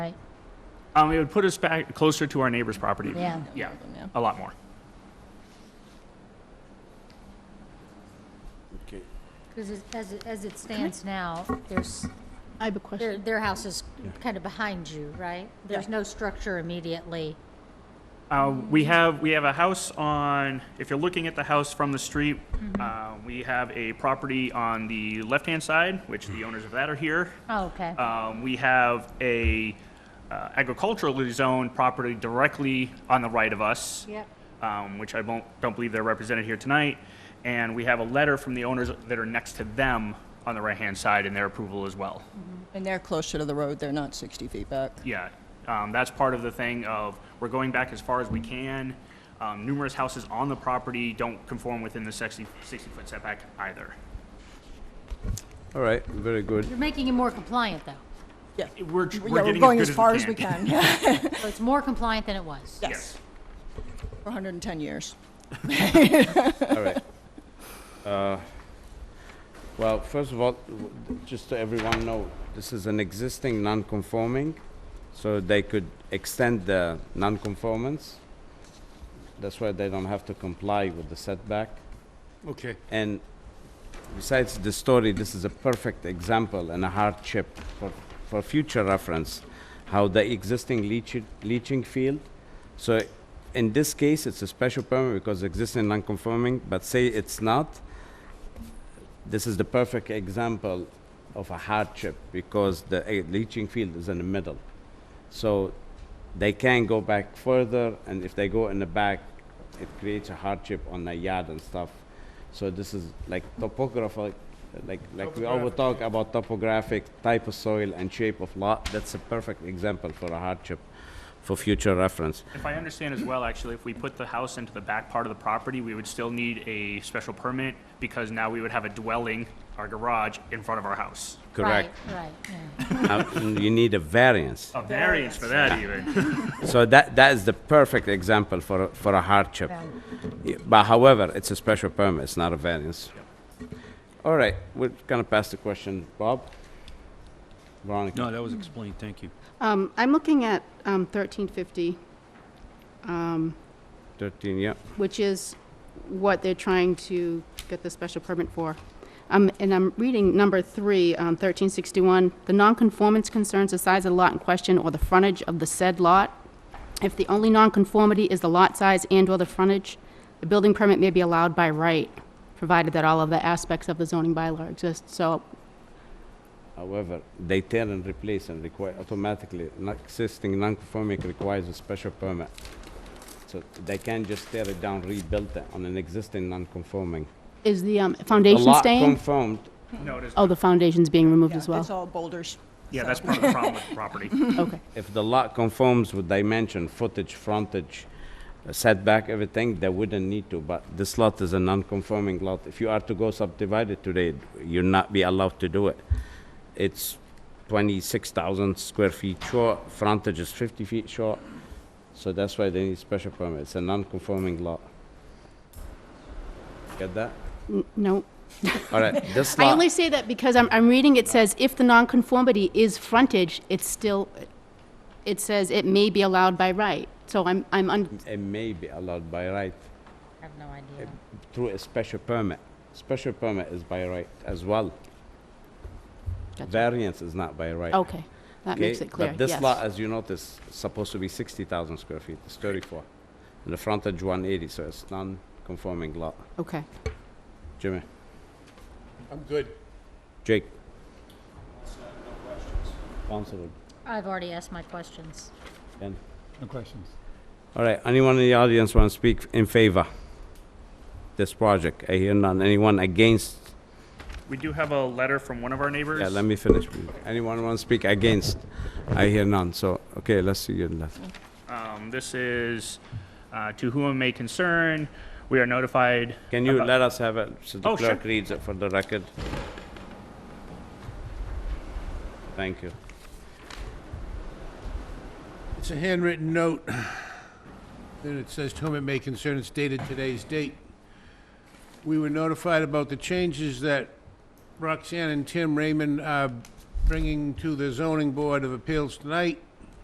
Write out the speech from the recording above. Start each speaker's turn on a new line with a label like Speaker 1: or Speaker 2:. Speaker 1: Um, it would put us back closer to our neighbor's property.
Speaker 2: Yeah.
Speaker 1: Yeah,
Speaker 2: Yeah.
Speaker 1: a lot more.
Speaker 3: Okay.
Speaker 4: Because as, it- as it stands now, there's,
Speaker 5: I have a
Speaker 4: their,
Speaker 5: question.
Speaker 4: their house is kind of behind you, right? There's
Speaker 5: Yeah.
Speaker 4: no structure immediately.
Speaker 1: Uh, we have, we have a house on, if you're looking at the house from the street, uh,
Speaker 4: Mm-hmm.
Speaker 1: we have a property on the left-hand side, which the owners of that are here.
Speaker 4: Oh, okay.
Speaker 1: Um, we have a uh, agriculturally zoned property directly on the right of us.
Speaker 4: Yep.
Speaker 1: Um, which I won't, don't believe they're represented here tonight. And we have a letter from the owners that are next to them on the right-hand side and their approval as well.
Speaker 2: And they're closer to the road, they're not 60 feet back.
Speaker 1: Yeah, um, that's part of the thing of, we're going back as far as we can. Um, numerous houses on the property don't conform within the 60 sixty-foot setback either.
Speaker 3: All right, very good.
Speaker 4: You're making it more compliant, though.
Speaker 2: Yeah.
Speaker 1: We're,
Speaker 2: Yeah,
Speaker 1: we're getting
Speaker 2: going
Speaker 1: as good
Speaker 2: far as we can, yeah.
Speaker 4: So it's more compliant than it was.
Speaker 2: Yes,
Speaker 1: Yes.
Speaker 2: for 110 years.
Speaker 3: All right. Uh, Well, first of all, w- just so everyone know, this is an existing non-conforming, so they could extend the non-conformance. That's why they don't have to comply with the setback.
Speaker 6: Okay.
Speaker 3: And besides the story, this is a perfect example and a hardship for, for future reference, how the existing leaching, leaching field. So in this case, it's a special permit because existing non-conforming, but say it's not, this is the perfect example of a hardship because the eh, leaching field is in the middle. So they can go back further, and if they go in the back, it creates a hardship on the yard and stuff. So this is like topographic, like, like we always talk about topographic, type of soil and shape of lot. That's a perfect example for a hardship for future reference.
Speaker 1: If I understand as well, actually, if we put the house into the back part of the property, we would still need a special permit because now we would have a dwelling, our garage, in front of our house.
Speaker 3: Correct.
Speaker 4: Right, right, yeah.
Speaker 3: Uh, you need a variance.
Speaker 1: A variance for that even.
Speaker 3: So that, that is the perfect example for, a- for a hardship. Yeah, But however, it's a special permit, it's not a variance. All right, we're gonna pass the question, Bob? Veronica?
Speaker 6: No, that was explained, thank you.
Speaker 5: Um, I'm looking at um, 1350,
Speaker 3: 13, yeah.
Speaker 5: which is what they're trying to get the special permit for. Um, And I'm reading number three, um, 1361. The nonconformance concerns the size of the lot in question or the frontage of the said lot. If the only nonconformity is the lot size and/or the frontage, the building permit may be allowed by right, provided that all of the aspects of the zoning bylaw exist. So
Speaker 3: However, they tear and replace and require automatically, an existing non-conforming requires a special permit. So they can't just tear it down, rebuild it on an existing non-conforming.
Speaker 5: is the um,
Speaker 3: The
Speaker 5: foundation
Speaker 3: lot
Speaker 5: staying?
Speaker 3: confirmed,
Speaker 1: No, it is,
Speaker 5: Oh, the foundation's being removed as
Speaker 2: Yeah,
Speaker 5: well?
Speaker 2: It's all boulders.
Speaker 1: yeah, that's part of the problem with the property.
Speaker 5: Okay.
Speaker 3: if the lot conforms with dimension, footage, frontage, uh, setback, everything, they wouldn't need to, but this lot is a non-conforming lot. If you are to go subdivided today, you'll not be allowed to do it. It's twenty-six thousand square feet short, frontage is fifty feet short, so that's why they need special permit, it's a non-conforming lot. Get that?
Speaker 5: N- No.
Speaker 3: All right, this lot.
Speaker 5: I only say that because I'm, I'm reading, it says if the nonconformity is frontage, it's still, it says it may be allowed by right. So I'm, I'm, un-
Speaker 3: It may be allowed by right
Speaker 4: I have no idea.
Speaker 3: through a special permit. Special permit is by right as well. Variance is not by right.
Speaker 5: okay, that
Speaker 3: Okay,
Speaker 5: makes it clear,
Speaker 3: But this lot,
Speaker 5: yes.
Speaker 3: as you notice, is supposed to be 60,000 square feet, it's 34. And the frontage 180, so it's non-conforming lot.
Speaker 5: Okay.
Speaker 3: Jimmy,
Speaker 6: I'm good.
Speaker 3: Jake? Councilor
Speaker 4: I've already asked my questions.
Speaker 3: Ben.
Speaker 6: No questions.
Speaker 3: All right, anyone in the audience want to speak in favor this project? I hear none. Anyone against?
Speaker 1: We do have a letter from one of our neighbors.
Speaker 3: Yeah, let me finish. please. Anyone want to speak against? I hear none, so, okay, let's see your left.
Speaker 1: Um, This is, uh, to whom it may concern, we are notified.
Speaker 3: Can you
Speaker 1: about-
Speaker 3: let us have it, so the
Speaker 1: Oh, sure.
Speaker 3: clerk reads it for the record? Thank you.
Speaker 6: It's a handwritten note. Then it says, "To whom it may concern," it's dated today's date. We were notified about the changes that Roxanne and Tim Raymond are bringing to the zoning board of appeals tonight.